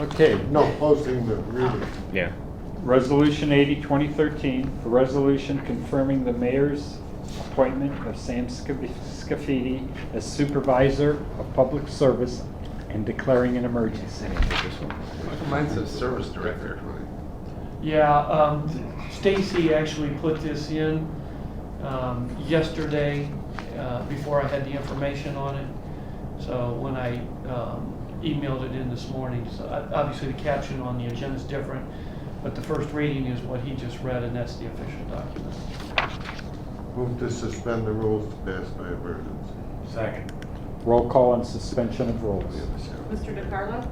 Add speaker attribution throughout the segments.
Speaker 1: Okay, no, posting the reading.
Speaker 2: Yeah.
Speaker 3: Resolution 80, 2013, a resolution confirming the mayor's appointment of Sam Scaf- Scafidi as supervisor of public service and declaring an emergency.
Speaker 4: Mine says service director.
Speaker 5: Yeah, um, Stacy actually put this in, um, yesterday, uh, before I had the information on it. So when I, um, emailed it in this morning, so I- obviously the caption on the agenda is different, but the first reading is what he just read, and that's the official document.
Speaker 1: Move to suspend the rules to pass by emergency.
Speaker 6: Second.
Speaker 3: Roll call on suspension of rules.
Speaker 7: Mr. DeCarlo?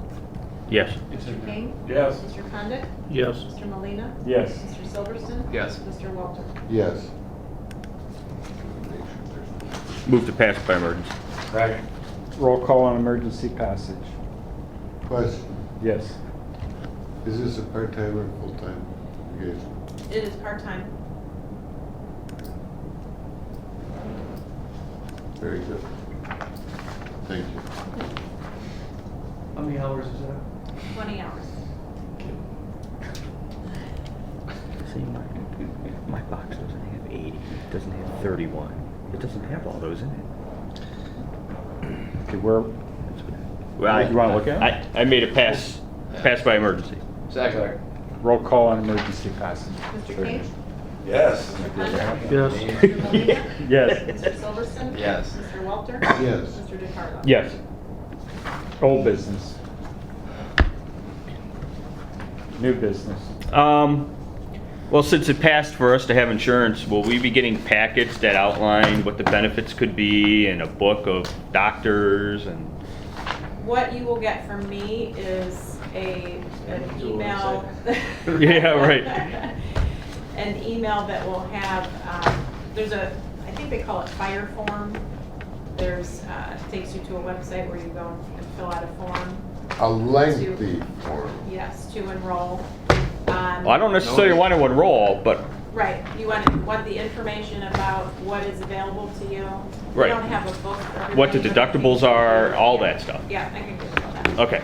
Speaker 2: Yes.
Speaker 5: It's in
Speaker 7: Mr.
Speaker 5: there.
Speaker 7: King?
Speaker 6: Yes.
Speaker 7: Mr. Condit?
Speaker 2: Yes.
Speaker 7: Mr. Molina,
Speaker 3: Yes.
Speaker 7: Mr. Silverston?
Speaker 4: Yes.
Speaker 7: Mr. Walter?
Speaker 1: Yes.
Speaker 2: Move to pass by emergency.
Speaker 6: Second.
Speaker 3: Roll call on emergency passage.
Speaker 1: Question,
Speaker 3: Yes.
Speaker 1: is this a part-time or full-time engagement?
Speaker 7: It is part-time.
Speaker 1: Very good. Thank you.
Speaker 5: How many hours is that?
Speaker 7: Twenty hours.
Speaker 2: See, my, my box doesn't have 80, it doesn't have 31. It doesn't have all those in it.
Speaker 3: Okay, where,
Speaker 2: Well, I,
Speaker 3: You wanna look at
Speaker 2: I, I made a pass, pass by emergency.
Speaker 4: Second.
Speaker 3: roll call on emergency passage.
Speaker 7: Mr. King?
Speaker 6: Yes.
Speaker 7: Mr. Condit?
Speaker 2: Yes.
Speaker 7: Mr. Molina,
Speaker 3: Yes.
Speaker 7: Mr. Silverston?
Speaker 4: Yes.
Speaker 7: Mr. Walter?
Speaker 1: Yes.
Speaker 7: Mr. DeCarlo?
Speaker 2: Yes.
Speaker 3: Old business. New business.
Speaker 2: Um, well, since it passed for us to have insurance, will we be getting packets that outline what the benefits could be and a book of doctors and?
Speaker 7: What you will get from me is a, an
Speaker 4: Do what
Speaker 7: email.
Speaker 4: I
Speaker 2: Yeah, right.
Speaker 7: An email that will have, um, there's a, I think they call it fire form. There's, uh, takes you to a website where you go and fill out a form,
Speaker 1: A lengthy form.
Speaker 7: yes, to enroll. Um,
Speaker 2: Well, I don't necessarily want to enroll, but
Speaker 7: Right, you want, want the information about what is available to you. We
Speaker 2: Right.
Speaker 7: don't have a book. for everybody,
Speaker 2: what the
Speaker 7: but I can-
Speaker 2: deductibles are, all that stuff.
Speaker 7: Yeah, I can give you all that.
Speaker 2: Okay.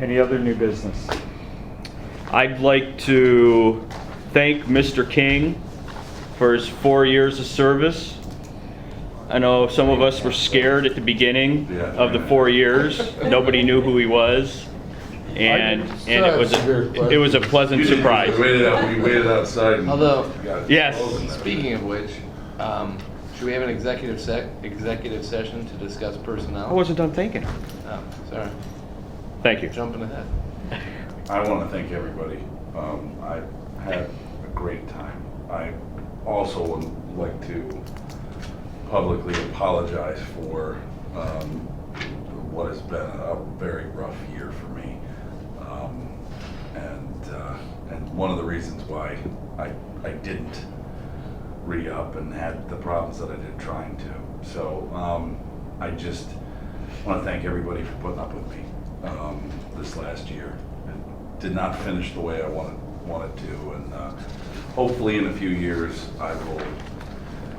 Speaker 3: Any other new business?
Speaker 2: I'd like to thank Mr. King for his four years of service. I know some of us were scared at the beginning
Speaker 6: Yeah.
Speaker 2: of the four years. Nobody knew who he was. And, and it was, a- it was a pleasant surprise.
Speaker 6: We waited out, we waited outside. and
Speaker 4: Although-
Speaker 6: got it
Speaker 2: Yes.
Speaker 6: frozen.
Speaker 4: Speaking of which, um, should we have an executive sec, executive session to discuss personnel?
Speaker 2: I wasn't done thinking.
Speaker 4: Oh, sorry,
Speaker 2: Thank you.
Speaker 4: jumping ahead.
Speaker 8: I want to thank everybody. Um, I had a great time. I also would like to publicly apologize for um, what has been a very rough year for me. Um, and uh, and one of the reasons why I I didn't re-up and had the problems that I did trying to. So um, I just want to thank everybody for putting up with me um, this last year. It did not finish the way I wanted wanted to, and uh, hopefully in a few years I will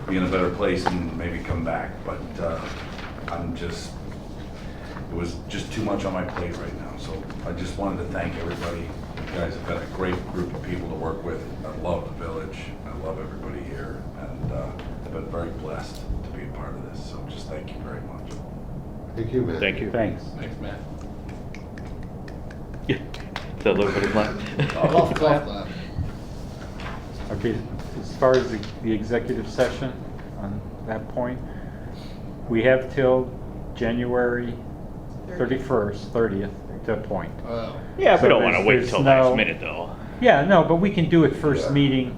Speaker 8: be in a better place and maybe come back. But uh, I'm just it was just too much on my plate right now. So I just wanted to thank everybody. You guys have been a great group of people to work with. I love the village. I love everybody here. And uh, I've been very blessed to be a part of this. So just thank you very much.
Speaker 1: Thank you, Matt.
Speaker 2: Thank you.
Speaker 3: Thanks.
Speaker 4: Thanks, Matt.
Speaker 2: Yeah. It's a little bit of
Speaker 4: Golf
Speaker 2: luck.
Speaker 4: clap. laugh.
Speaker 3: Okay, as far as the- the executive session on that point, we have till January 31st, 30th to appoint.
Speaker 4: Wow.
Speaker 2: Yeah, we don't want to
Speaker 3: So
Speaker 2: wait
Speaker 3: there's-
Speaker 2: till
Speaker 3: there's
Speaker 2: last
Speaker 3: no-
Speaker 2: minute, though.
Speaker 3: Yeah, no, but we can do it first
Speaker 8: Yeah.
Speaker 3: meeting,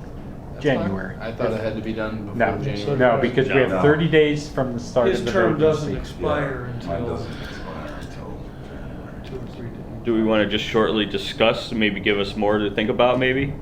Speaker 4: That's fine.
Speaker 3: January.
Speaker 4: I thought it had to be done before
Speaker 3: No,
Speaker 4: January.
Speaker 3: no, because we have
Speaker 2: No.
Speaker 3: 30 days from the start of
Speaker 5: His
Speaker 3: the
Speaker 5: term doesn't
Speaker 3: vacancy.
Speaker 5: expire
Speaker 8: Yeah, Mine
Speaker 5: until
Speaker 8: doesn't expire until January.
Speaker 5: two or three days.
Speaker 2: Do we want to just shortly discuss, maybe give us more to think about, maybe?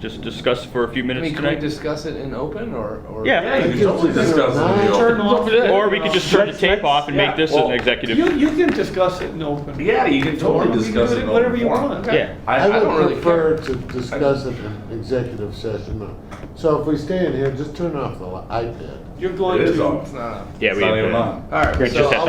Speaker 2: Just discuss for a few
Speaker 4: I
Speaker 2: minutes
Speaker 4: mean, can we
Speaker 2: tonight?
Speaker 4: discuss it in open or? or-
Speaker 2: Yeah. Yeah,
Speaker 8: You can totally discuss it in the
Speaker 5: Turn
Speaker 8: open.
Speaker 5: off. uh,
Speaker 2: Or we could just turn the tape off and make this an
Speaker 5: You,
Speaker 2: executive.
Speaker 5: you can discuss it in open.
Speaker 8: Yeah, you can totally
Speaker 5: You can do
Speaker 8: discuss it.
Speaker 5: it
Speaker 8: in
Speaker 5: whatever
Speaker 8: open
Speaker 5: you
Speaker 8: forum.
Speaker 5: want.
Speaker 2: Yeah.
Speaker 8: I, I
Speaker 1: I
Speaker 8: don't
Speaker 1: would
Speaker 4: really
Speaker 1: prefer
Speaker 4: care.
Speaker 1: to discuss it in executive session. So if we stay in here, just turn off the li- iPad.
Speaker 5: You're
Speaker 8: really.
Speaker 5: going
Speaker 8: It is
Speaker 5: to.
Speaker 8: on.
Speaker 4: It's not.
Speaker 2: Yeah,
Speaker 8: It's
Speaker 2: we
Speaker 8: not
Speaker 2: have
Speaker 8: even
Speaker 2: to-
Speaker 8: on.
Speaker 4: All right.
Speaker 2: We're
Speaker 4: so
Speaker 2: just at
Speaker 4: I'll-